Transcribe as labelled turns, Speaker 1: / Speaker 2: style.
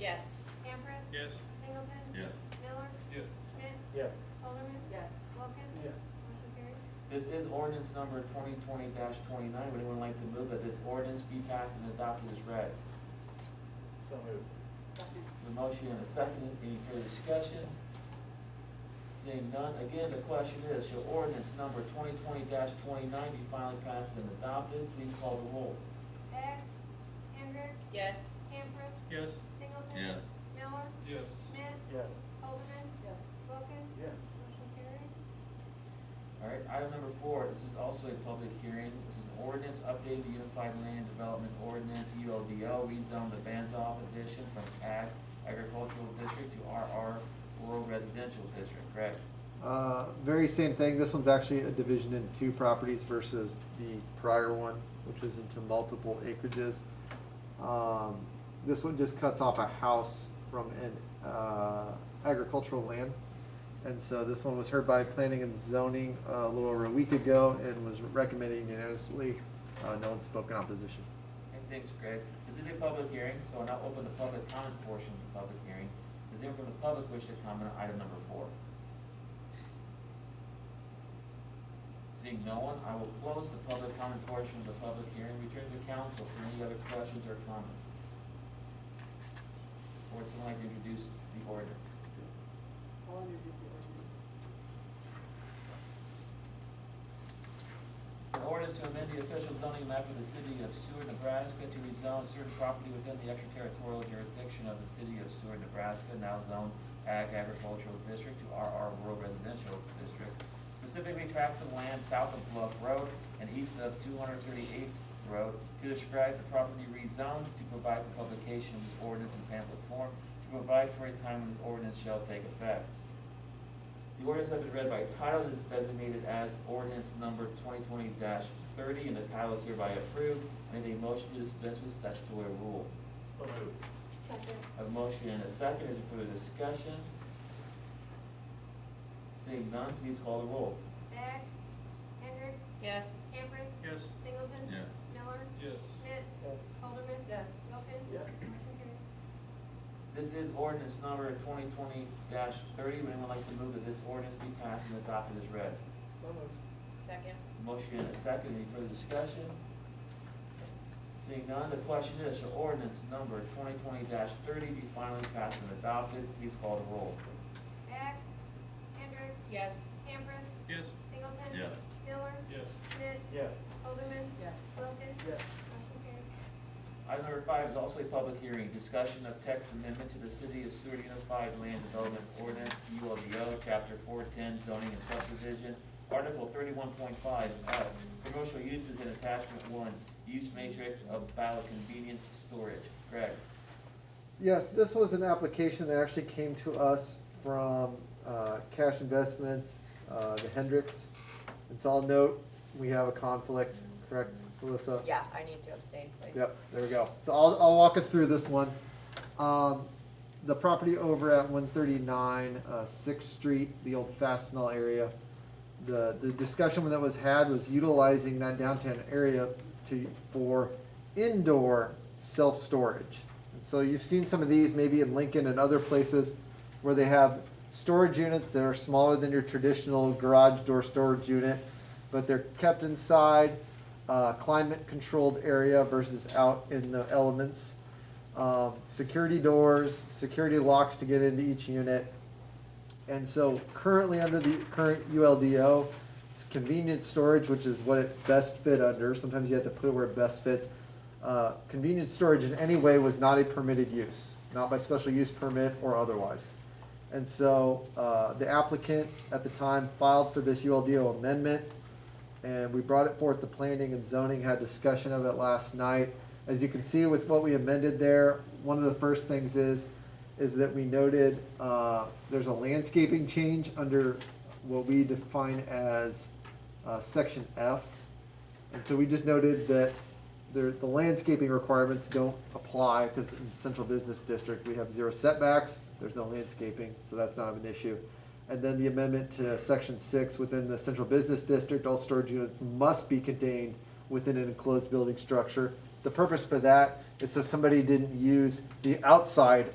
Speaker 1: Yes.
Speaker 2: Camper?
Speaker 3: Yes.
Speaker 2: Singleton?
Speaker 4: Yes.
Speaker 2: Miller?
Speaker 3: Yes.
Speaker 2: Schmidt?
Speaker 5: Yes.
Speaker 2: Alderman?
Speaker 1: Yes.
Speaker 2: Wilkins?
Speaker 5: Yes.
Speaker 2: Motion carries.
Speaker 6: This is ordinance number twenty twenty twenty-nine. Would anyone like to move that this ordinance be passed and adopted as read?
Speaker 5: So moved.
Speaker 1: Second.
Speaker 6: The motion and a second. Any further discussion? Seeing none. Again, the question is, shall ordinance number twenty twenty twenty-nine be finally passed and adopted? Please call the roll.
Speaker 2: Beck? Hendrick?
Speaker 1: Yes.
Speaker 2: Camper?
Speaker 3: Yes.
Speaker 2: Singleton?
Speaker 4: Yes.
Speaker 2: Miller?
Speaker 3: Yes.
Speaker 2: Schmidt?
Speaker 5: Yes.
Speaker 2: Alderman?
Speaker 1: Yes.
Speaker 2: Wilkins?
Speaker 5: Yes.
Speaker 2: Motion carries.
Speaker 6: All right, item number four, this is also a public hearing. This is an ordinance updating the Unified Land Development Ordinance, ULDO, rezone the Banzoff addition from ag agricultural district to RR rural residential district, correct?
Speaker 7: Uh, very same thing. This one's actually a division in two properties versus the prior one, which is into multiple acreages. Um, this one just cuts off a house from an, uh, agricultural land. And so this one was heard by planning and zoning uh, a little over a week ago and was recommended unanimously. Uh, no one spoke in opposition.
Speaker 6: Hey, Thanks, Greg. This is a public hearing, so I'll now open the public comment portion of the public hearing. Is anyone from the public wish to comment on item number four? Seeing no one, I will close the public comment portion of the public hearing, return to council for any other questions or comments. Or would someone like to introduce the order?
Speaker 1: I'll introduce the ordinance.
Speaker 6: An ordinance to amend the official zoning map of the city of Seward, Nebraska to rezone certain property within the extraterritorial jurisdiction of the city of Seward, Nebraska, now zoned Ag Agricultural District to RR Rural Residential District, specifically tracts of land south of Bluff Road and east of two hundred thirty-eighth Road, to describe the property rezoned, to provide for publication of this ordinance in pamphlet form, to provide for a time when this ordinance shall take effect. The ordinance has been read by title and is designated as ordinance number twenty twenty thirty, and the title is hereby approved. And a motion to dispense with statutory rule.
Speaker 5: So moved.
Speaker 1: Second.
Speaker 6: A motion and a second, is there further discussion? Seeing none, please call the roll.
Speaker 2: Beck? Hendrick?
Speaker 1: Yes.
Speaker 2: Camper?
Speaker 3: Yes.
Speaker 2: Singleton?
Speaker 4: Yeah.
Speaker 2: Miller?
Speaker 3: Yes.
Speaker 2: Schmidt?
Speaker 5: Yes.
Speaker 2: Alderman?
Speaker 1: Yes.
Speaker 2: Wilkins?
Speaker 5: Yes.
Speaker 2: Motion carries.
Speaker 6: This is ordinance number twenty twenty thirty. Would anyone like to move that this ordinance be passed and adopted as read?
Speaker 5: So moved.
Speaker 1: Second.
Speaker 6: Motion and a second, any further discussion? Seeing none, the question is, shall ordinance number twenty twenty thirty be finally passed and adopted? Please call the roll.
Speaker 2: Beck? Hendrick?
Speaker 1: Yes.
Speaker 2: Camper?
Speaker 3: Yes.
Speaker 2: Singleton?
Speaker 4: Yes.
Speaker 2: Miller?
Speaker 3: Yes.
Speaker 2: Schmidt?
Speaker 5: Yes.
Speaker 2: Alderman?
Speaker 1: Yes.
Speaker 2: Wilkins?
Speaker 5: Yes.
Speaker 2: Motion carries.
Speaker 6: Item number five is also a public hearing, discussion of text amendment to the City of Seward Unified Land Development Ordinance, ULDO, Chapter four-ten, zoning and subdivision, Article thirty-one point five, F, commercial uses in attachment one, use matrix of ballot convenience storage. Greg?
Speaker 7: Yes, this was an application that actually came to us from uh, Cash Investments, uh, the Hendricks. And so I'll note, we have a conflict, correct, Alyssa?
Speaker 1: Yeah, I need to abstain, please.
Speaker 7: Yep, there we go. So I'll, I'll walk us through this one. Um, the property over at one thirty-nine, uh, Sixth Street, the old Fastenal area. The, the discussion that was had was utilizing that downtown area to, for indoor self-storage. And so you've seen some of these maybe in Lincoln and other places where they have storage units that are smaller than your traditional garage door storage unit, but they're kept inside uh, climate-controlled area versus out in the elements. Um, Security doors, security locks to get into each unit. And so currently under the current ULDO, it's convenience storage, which is what it best fit under, sometimes you have to put it where it best fits. Uh, Convenience storage in any way was not a permitted use, not by special use permit or otherwise. And so uh, the applicant at the time filed for this ULDO amendment, and we brought it forth to planning and zoning, had discussion of it last night. As you can see with what we amended there, one of the first things is, is that we noted, uh, there's a landscaping change under what we define as, uh, section F. And so we just noted that there, the landscaping requirements don't apply, cause in central business district, we have zero setbacks, there's no landscaping, so that's not an issue. And then the amendment to section six, within the central business district, all storage units must be contained within an enclosed building structure. The purpose for that is so somebody didn't use the outside